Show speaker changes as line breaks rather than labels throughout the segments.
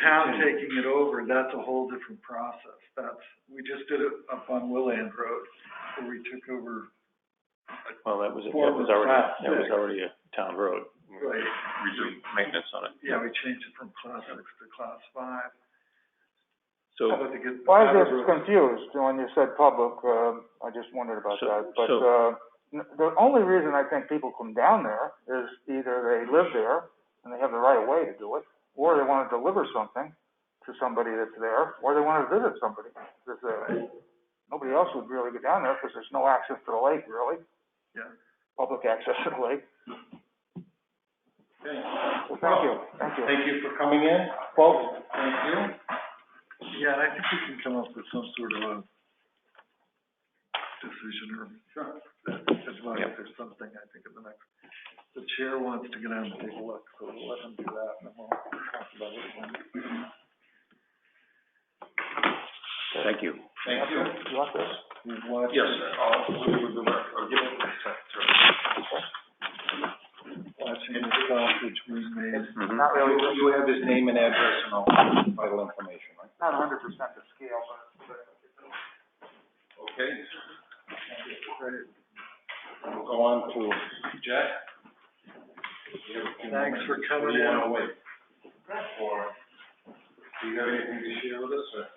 town taking it over, that's a whole different process. That's, we just did it up on Willand Road, where we took over,
Well, that was, that
Former
was already,
class
that was
six.
already a town road.
right,
We do maintenance on it.
yeah, we changed it from class six to class five.
So,
How about to get the
Well, I was
powder road?
confused when you said public, uh, I just wondered about
So-
that, but,
so-
uh, n- the only reason I think people come down there is either they live there and they have the right of way to do it, or they wanna deliver something to somebody that's there, or they wanna visit somebody that's there. Nobody else would really go down there, cause there's no access to the lake, really.
Yeah.
Public access to the lake,
Okay.
so thank you, thank you.
Thank you for coming in, folks, thank you.
Yeah, I think we can come up with some sort of a decision or, as long as
Yep.
there's something, I think, in the next. The chair wants to get out and take a look, so we'll let him do that, and then we'll talk about it when.
thank you.
Thank you.
You want this?
we've watched
Yes,
it.
sir, I'll, we'll, I'll give it to
watching the sausage being made.
Mhm.
Not really,
You, you have his name and address and all vital information, right?
not hundred percent the scale, but.
Okay. We'll go on to Jack. You have a few
Thanks
moments.
for coming
What do you
in.
wanna wait? Or, do you have anything to share with us, or?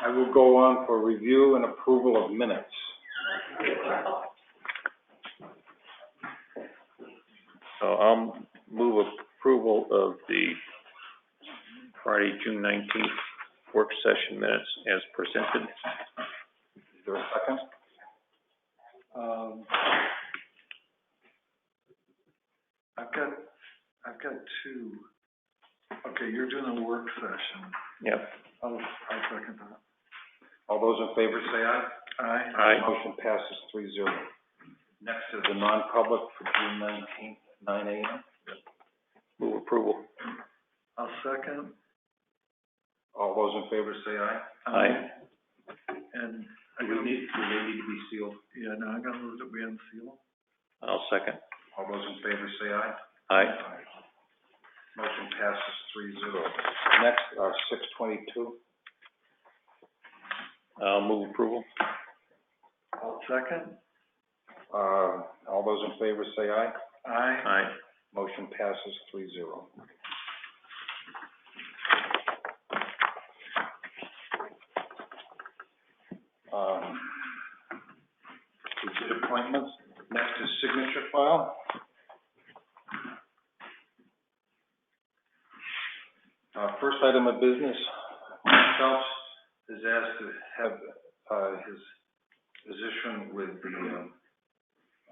I will go on for review and approval of minutes.
So I'll move approval of the Friday, June nineteenth work session minutes as presented.
Is there a second?
Um, I've got, I've got two. Okay, you're doing a work session.
Yep,
I'll, I'll second that.
All those in favor say aye.
Aye.
aye.
Motion passes three zero. Next is the non-public for June nineteenth, nine AM.
Move approval.
I'll second.
All those in favor say aye.
Aye.
And I
Do we
gotta,
need, do they need to be sealed?
yeah, no, I gotta move that we unseal.
I'll second.
All those in favor say aye.
Aye.
Motion passes three zero. Next, are six twenty-two.
I'll move approval.
I'll second.
Uh, all those in favor say aye.
Aye.
Aye.
Motion passes three zero. Um, we did appointments. Next is signature file. Uh, first item of business, Mike Phelps is asked to have, uh, his position with the, um,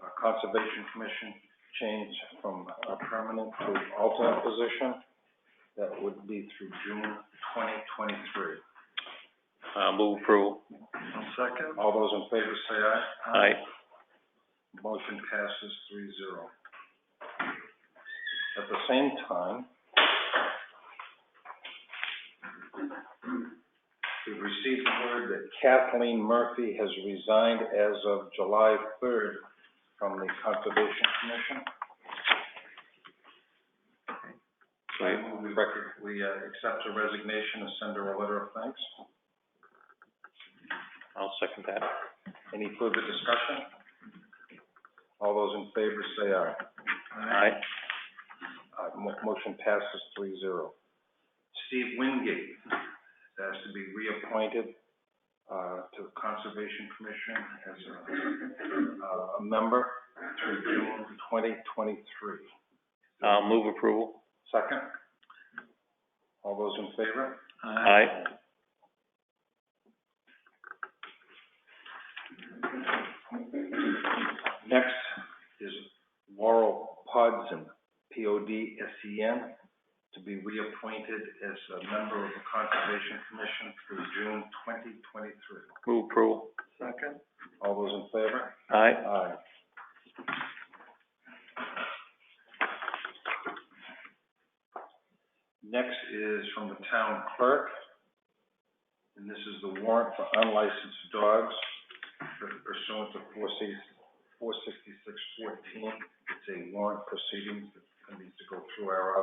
uh, Conservation Commission change from a permanent to alternate position. That would be through June twenty twenty-three.
I'll move approval.
I'll second.
All those in favor say aye.
Aye.
Motion passes three zero. At the same time, we've received word that Kathleen Murphy has resigned as of July third from the Conservation Commission. I move we record, we, uh, accept her resignation and send her a letter of thanks.
I'll second that.
Any further discussion? All those in favor say aye.
Aye.
Uh, mo- motion passes three zero. Steve Wingate has to be reappointed, uh, to the Conservation Commission as a, uh, a member through June twenty twenty-three.
I'll move approval.
Second? All those in favor?
Aye.
Next is Laurel Podsen, P O D S E N, to be reappointed as a member of the Conservation Commission through June twenty twenty-three.
Move approval.
Second.
All those in favor?
Aye.
Aye. Next is from the town clerk, and this is the warrant for unlicensed dogs pursuant to four six, four sixty-six fourteen. It's a warrant proceedings that needs to go through our